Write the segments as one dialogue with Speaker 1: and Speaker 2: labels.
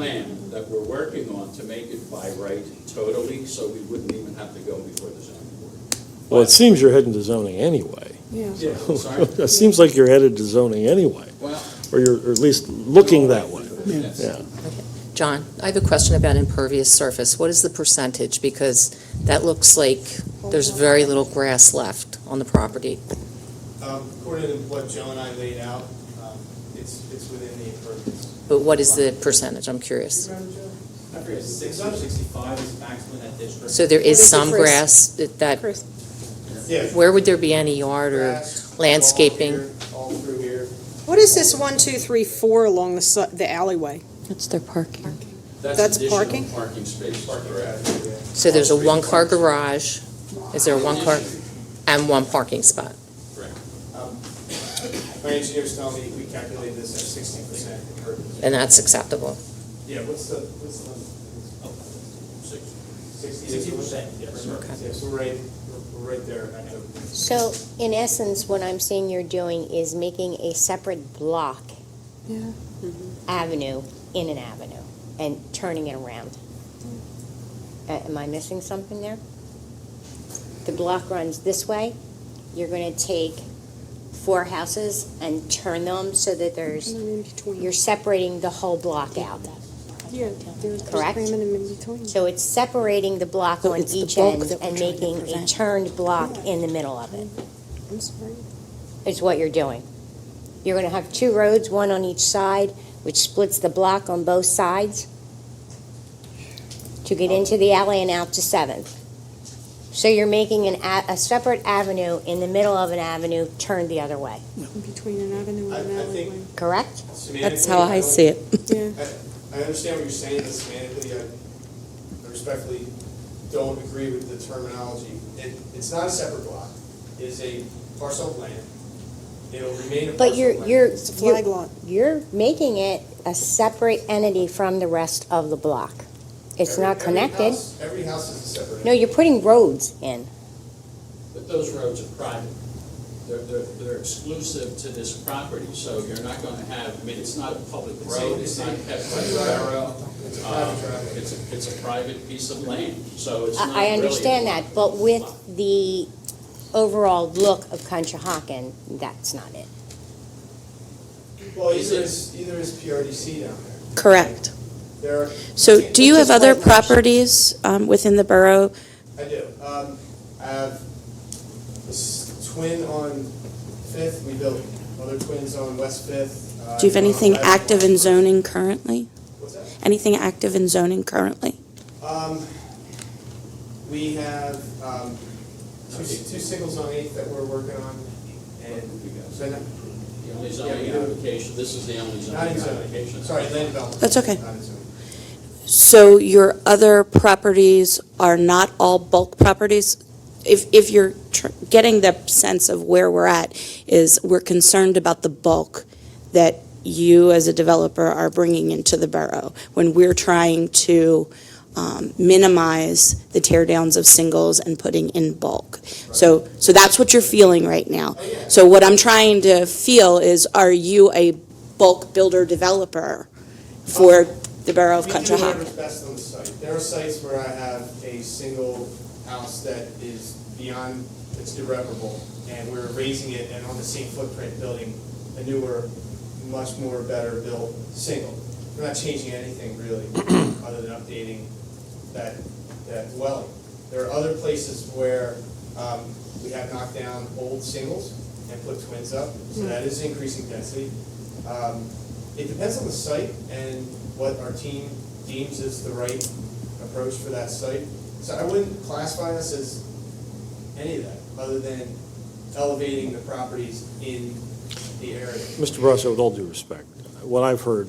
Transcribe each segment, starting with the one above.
Speaker 1: plan that we're working on to make it by right totally, so we wouldn't even have to go before the zoning board.
Speaker 2: Well, it seems you're heading to zoning anyway.
Speaker 3: Yeah,
Speaker 1: Sorry.
Speaker 2: It seems like you're headed to zoning anyway,
Speaker 1: Well.
Speaker 2: or you're or at least looking that way.
Speaker 1: Yes.
Speaker 2: Yeah.
Speaker 4: John, I have a question about impervious surface. What is the percentage? Because that looks like there's very little grass left on the property.
Speaker 5: Um, According to what Joe and I laid out, um, it's, it's within the impervious.
Speaker 4: But what is the percentage? I'm curious.
Speaker 5: I forget, sixty or sixty-five is maximum in that district.
Speaker 4: So there
Speaker 3: What is
Speaker 4: is
Speaker 3: the
Speaker 4: some
Speaker 3: first-
Speaker 4: grass that- that,
Speaker 3: Chris,
Speaker 5: Yeah.
Speaker 4: where would there be any yard or?
Speaker 5: Grass, all
Speaker 4: landscaping.
Speaker 5: here, All through here.
Speaker 3: what is this one, two, three, four along the si- the alleyway?
Speaker 6: That's their parking.
Speaker 3: That's
Speaker 1: additional
Speaker 3: parking?
Speaker 1: Parking spaces. correct.
Speaker 5: Yeah.
Speaker 4: So there's a
Speaker 1: Concrete
Speaker 4: one-car
Speaker 1: parking.
Speaker 4: garage, is there a one-car, and one parking spot?
Speaker 5: Um, My engineers tell me we calculated this at sixty percent impervious.
Speaker 4: And that's acceptable?
Speaker 5: Yeah, what's the, what's the limit? Sixty. percent, yes. Yeah, so we're right, we're- we're right there. at the-
Speaker 7: So, in essence, what I'm seeing you're doing is making a separate block
Speaker 6: Yeah.
Speaker 7: avenue in an avenue and turning it around. A- Am I missing something there? The block runs this way, you're gonna take four houses and turn them so that there's,
Speaker 3: And then in between.
Speaker 7: you're separating the whole block out.
Speaker 3: Yeah, there's there's
Speaker 7: Correct.
Speaker 3: agreement in between.
Speaker 7: So it's separating the block
Speaker 6: So
Speaker 7: on
Speaker 6: it's the
Speaker 7: each
Speaker 6: bulk
Speaker 7: end
Speaker 6: that we're
Speaker 7: and
Speaker 6: trying to
Speaker 7: making a
Speaker 6: prevent.
Speaker 7: turned block in the middle of it.
Speaker 3: I'm sorry.
Speaker 7: is what you're doing. You're going to have two roads, one on each side, which splits the block on both sides to get into the alley and out to Seventh. So you're making an, a, a separate avenue in the middle of an avenue turned the other way,
Speaker 3: In between an avenue
Speaker 5: I-
Speaker 3: and an
Speaker 5: I think-
Speaker 3: alleyway.
Speaker 7: correct?
Speaker 6: That's how I see it.
Speaker 3: Yeah,
Speaker 5: I understand what you're saying, but semantically, I I respectfully don't agree with the terminology. It, it's not a separate block, it is a parcel of land. It'll remain a parcel
Speaker 7: But
Speaker 5: of
Speaker 7: you're,
Speaker 5: land.
Speaker 7: you're,
Speaker 3: it's a
Speaker 7: you're,
Speaker 3: flag lot.
Speaker 7: you're making it a separate entity from the rest of the block. It's
Speaker 5: Every-
Speaker 7: not
Speaker 5: every
Speaker 7: connected.
Speaker 5: house- Every house is a separate.
Speaker 7: No, you're putting roads in.
Speaker 1: But those roads are private. They're, they're, they're exclusive to this property, so you're not gonna have, I mean, it's not a public
Speaker 5: It's a-
Speaker 1: road,
Speaker 5: it's
Speaker 1: it's
Speaker 5: a-
Speaker 1: not kept by the borough.
Speaker 5: It's a
Speaker 1: Um,
Speaker 5: private driveway.
Speaker 1: It's a, it's a private piece of land, so it's not
Speaker 7: I, I
Speaker 1: really.
Speaker 7: understand that, but with the overall look of Conshohocken, that's not it.
Speaker 5: Well, either is, either is PRDC down there.
Speaker 6: Correct.
Speaker 5: There are.
Speaker 6: So do you have
Speaker 7: Which is
Speaker 6: other
Speaker 7: what it was.
Speaker 6: properties um, within the borough?
Speaker 5: I do. Um, I have this twin on Fifth, we built other twins on West Fifth. Uh,
Speaker 6: Do you have anything
Speaker 5: I have-
Speaker 6: active in zoning currently?
Speaker 5: What's that?
Speaker 6: Anything active in zoning currently?
Speaker 5: Um, we have, um, two, two singles on eight that we're working on, and, so not,
Speaker 1: The only zoning application, this is the only zoning
Speaker 5: not in zoning,
Speaker 1: application.
Speaker 5: sorry, land development.
Speaker 6: That's okay.
Speaker 5: Not in zoning.
Speaker 6: So your other properties are not all bulk properties? If, if you're tr- getting the sense of where we're at, is we're concerned about the bulk that you as a developer are bringing into the borough, when we're trying to um, minimize the tear downs of singles and putting in bulk. So, so that's what you're feeling right now. So what I'm trying to feel is, are you a bulk builder developer for the borough of
Speaker 5: We do
Speaker 6: Conshohocken?
Speaker 5: whatever's best on the site. There are sites where I have a single house that is beyond, it's irreparable, and we're raising it and on the same footprint building a newer, much more better built single. We're not changing anything really, other than updating that, that dwelling. There are other places where um, we have knocked down old singles and put twins up, so that is increasing density. Um, It depends on the site and what our team deems is the right approach for that site. So I wouldn't classify us as any of that, other than elevating the properties in the area.
Speaker 2: Mr. Brasso, with all due respect, what I've heard,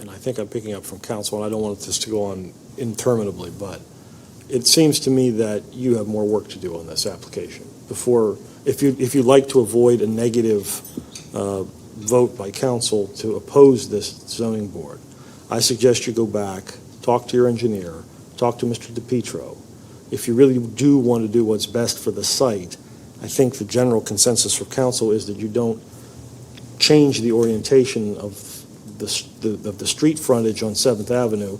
Speaker 2: and I think I'm picking up from council, and I don't want this to go on interminably, but it seems to me that you have more work to do on this application before, if you, if you'd like to avoid a negative uh, vote by council to oppose this zoning board, I suggest you go back, talk to your engineer, talk to Mr. DePietro. If you really do want to do what's best for the site, I think the general consensus for council is that you don't change the orientation of the, s- the- of the street frontage on Seventh Avenue